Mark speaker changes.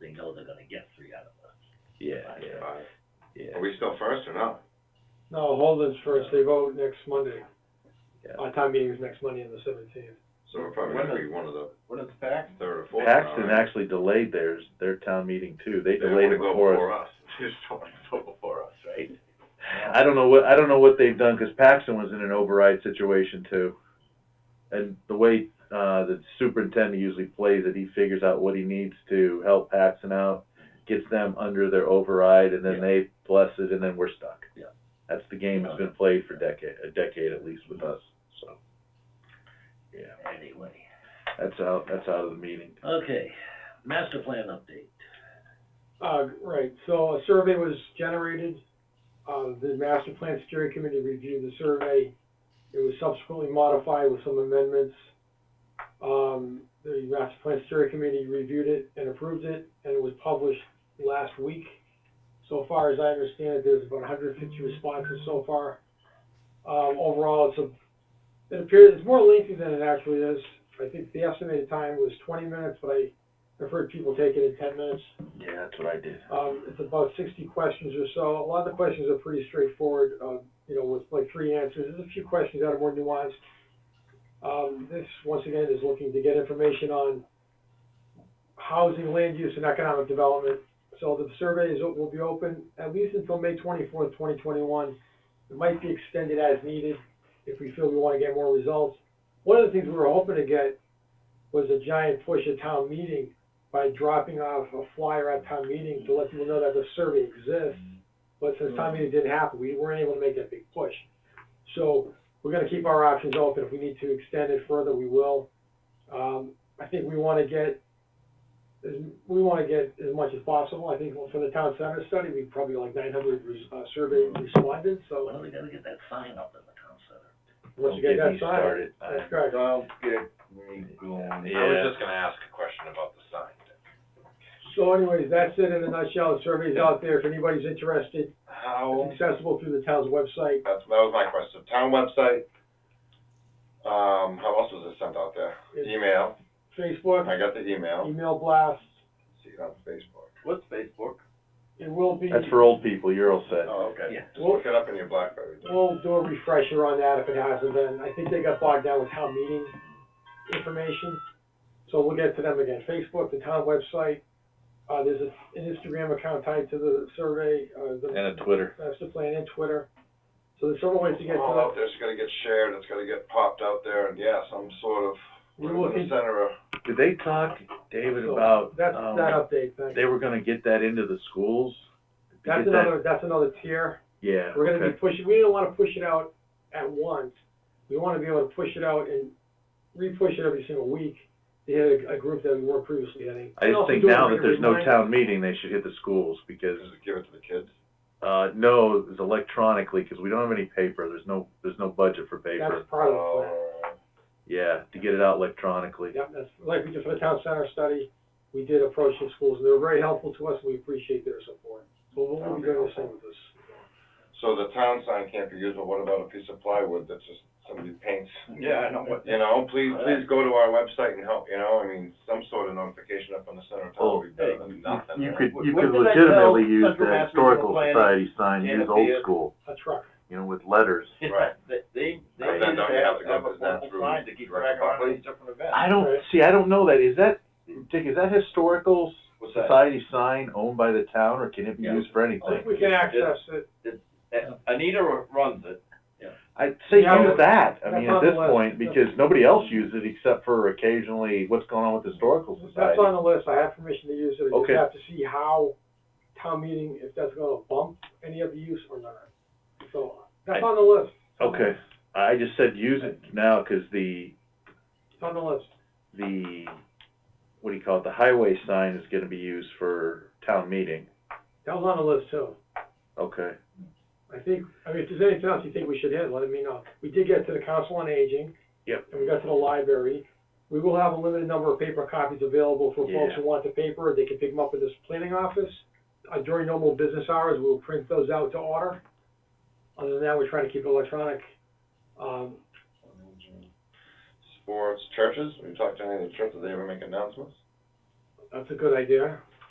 Speaker 1: they're gonna get three out of us.
Speaker 2: Yeah, yeah,
Speaker 3: Alright.
Speaker 2: yeah.
Speaker 3: Are we still first or not?
Speaker 4: No, Holden's first, they vote next Monday.
Speaker 2: Yeah.
Speaker 4: Our time meeting is next Monday on the seventeenth.
Speaker 3: So we're probably gonna be one of the
Speaker 5: What is back?
Speaker 3: third or fourth.
Speaker 2: Paxton
Speaker 3: round.
Speaker 2: actually delayed theirs, their town meeting too, they
Speaker 3: They don't
Speaker 2: delayed
Speaker 3: wanna
Speaker 2: it
Speaker 3: go
Speaker 2: before us.
Speaker 3: before us. They just don't wanna go before us, right?
Speaker 2: I don't know what, I don't know what they've done, cause Paxton was in an override situation too. And the way, uh, the superintendent usually plays it, he figures out what he needs to help Paxton out, gets them under their override, and
Speaker 1: Yeah.
Speaker 2: then they bless it, and then we're stuck.
Speaker 1: Yeah.
Speaker 2: That's the game that's been played for decade, a decade at least with us, so. Yeah,
Speaker 1: Anyway,
Speaker 2: that's out, that's out of the meeting.
Speaker 1: okay, master plan update.
Speaker 4: Uh, right, so a survey was generated, uh, the master plan steering committee reviewed the survey. It was subsequently modified with some amendments. Um, the master plan steering committee reviewed it and approved it, and it was published last week. So far as I understand it, there's about hundred and fifty responses so far. Um, overall, it's a, it appears, it's more lengthy than it actually is. I think the estimated time was twenty minutes, but I, I've heard people take it in ten minutes.
Speaker 2: Yeah, that's what I did.
Speaker 4: Um, it's about sixty questions or so. A lot of the questions are pretty straightforward, um, you know, with like three answers. There's a few questions that are more nuanced. Um, this, once again, is looking to get information on housing, land use, and economic development. So the survey is, will be open at least until May twenty-fourth, twenty twenty-one. It might be extended as needed if we feel we wanna get more results. One of the things we were hoping to get was a giant push at town meeting by dropping off a flyer at town meeting to let people know that the survey exists. But since town meeting didn't happen, we weren't able to make that big push. So we're gonna keep our options open. If we need to extend it further, we will. Um, I think we wanna get, as- we wanna get as much as possible. I think for the town center study, we probably like nine hundred, uh, survey respondents, so
Speaker 1: Well, we gotta get that sign up in the town center.
Speaker 4: once you
Speaker 2: Don't
Speaker 4: get Uh,
Speaker 2: get me
Speaker 4: that signed,
Speaker 2: started.
Speaker 4: that's correct.
Speaker 5: Don't get me going.
Speaker 3: I was
Speaker 2: Yeah.
Speaker 3: just gonna ask a question about the sign.
Speaker 4: So anyways, that's it in a nutshell. The survey's out there. If anybody's interested,
Speaker 3: How,
Speaker 4: it's accessible through the town's website.
Speaker 3: that's, that was my question, town website, um, how else was it sent out there?
Speaker 4: It's
Speaker 3: Email,
Speaker 4: Facebook,
Speaker 3: I got the email,
Speaker 4: email blast.
Speaker 3: see it on Facebook.
Speaker 5: What's Facebook?
Speaker 4: It will be,
Speaker 2: That's for old people, you're all set.
Speaker 3: Oh, okay,
Speaker 1: Yeah.
Speaker 3: just look it up in your Blackberry.
Speaker 4: we'll do a refresher on that if it hasn't been. I think they got bogged down with town meeting information. So we'll get to them again. Facebook, the town website. Uh, there's a- an Instagram account tied to the survey, uh, the
Speaker 2: And a Twitter.
Speaker 4: master plan and Twitter. So there's several ways to get to
Speaker 3: All
Speaker 4: that.
Speaker 3: out
Speaker 2: Oh,
Speaker 3: there, it's gonna get shared, it's gonna get popped out there, and yeah, some sort of,
Speaker 4: We're
Speaker 3: we're in the
Speaker 4: looking-
Speaker 3: center of,
Speaker 2: Did they talk, David,
Speaker 4: So
Speaker 2: about,
Speaker 4: That's
Speaker 2: um,
Speaker 4: that update, thanks.
Speaker 2: they were gonna get that into the schools? Did you
Speaker 4: That's
Speaker 2: get that-
Speaker 4: another, that's another tier.
Speaker 2: Yeah,
Speaker 4: We're gonna be
Speaker 2: okay,
Speaker 4: pushing, we do not wanna push it out at once, we wanna be able to push it out and re-push it every single week. They had a, a group that we weren't previously in.
Speaker 2: I just think now that there's no town meeting, they should hit the schools, because,
Speaker 3: just give it to the kids.
Speaker 2: uh, no, it's electronically, cause we don't have any paper, there's no, there's no budget for paper.
Speaker 4: That's part of the
Speaker 2: Oh.
Speaker 4: plan.
Speaker 3: Uh,
Speaker 2: Yeah, to get it out electronically.
Speaker 4: Yep, that's, like we did for the town center study, we did approach the schools, and they were very helpful to us, and we appreciate their support. So we'll be doing the same with this.
Speaker 3: So the town sign can't be used, but what about a piece of plywood that's just somebody paints?
Speaker 5: Yeah, I know what.
Speaker 3: You know, please, please go to our website and help, you know, I mean, some sort of notification up on the center of town would be better than nothing.
Speaker 2: Oh, You
Speaker 3: right?
Speaker 2: could, you
Speaker 5: What
Speaker 2: could
Speaker 5: did I tell
Speaker 2: legitimately use
Speaker 5: Central
Speaker 2: the
Speaker 5: Mass
Speaker 2: historical
Speaker 5: Regional Planning?
Speaker 2: society sign, use
Speaker 5: Janet
Speaker 2: old
Speaker 5: Beard?
Speaker 2: school,
Speaker 4: A truck,
Speaker 2: you know, with letters.
Speaker 3: Right.
Speaker 5: They, they, they
Speaker 3: But then
Speaker 5: need to
Speaker 3: don't you have
Speaker 5: have,
Speaker 3: to go
Speaker 5: have a
Speaker 3: through that
Speaker 5: formal
Speaker 3: through
Speaker 5: sign to keep
Speaker 3: direct
Speaker 5: track on
Speaker 3: property?
Speaker 5: these different events.
Speaker 2: I don't,
Speaker 4: Right.
Speaker 2: see, I don't know that, is that, Dick, is that historical
Speaker 5: What's that?
Speaker 2: society sign owned by the town, or can it be
Speaker 1: Yeah.
Speaker 2: used for
Speaker 4: I think
Speaker 2: anything?
Speaker 4: we can access it,
Speaker 5: Uh, Anita ru- runs it.
Speaker 2: I'd say
Speaker 4: Yeah,
Speaker 2: use
Speaker 4: but-
Speaker 2: that, I mean, at
Speaker 4: that's on the
Speaker 2: this
Speaker 4: list.
Speaker 2: point, because nobody else uses it except for occasionally what's going on with the historical
Speaker 4: that's
Speaker 2: society.
Speaker 4: on the list, I have permission to use it, I just
Speaker 2: Okay.
Speaker 4: have to see how town meeting, if that's gonna bump any of the use or not. So, that's on the list.
Speaker 2: Okay, I just said use it now, cause the,
Speaker 4: It's on the list.
Speaker 2: the, what do you call it, the highway sign is gonna be used for town meeting,
Speaker 4: That was on the list too.
Speaker 2: okay.
Speaker 4: I think, I mean, if there's anything else you think we should hit, let me know. We did get to the Council on Aging.
Speaker 2: Yep.
Speaker 4: And we got to the library. We will have a limited number of paper copies available for folks who want the paper. They can pick them up at this planning office. Uh, during normal business hours, we'll print those out to order. Other than that, we're trying to keep it electronic. Um,
Speaker 3: Sports, churches, we talked to any of the churches, they ever make announcements?
Speaker 4: that's a good idea.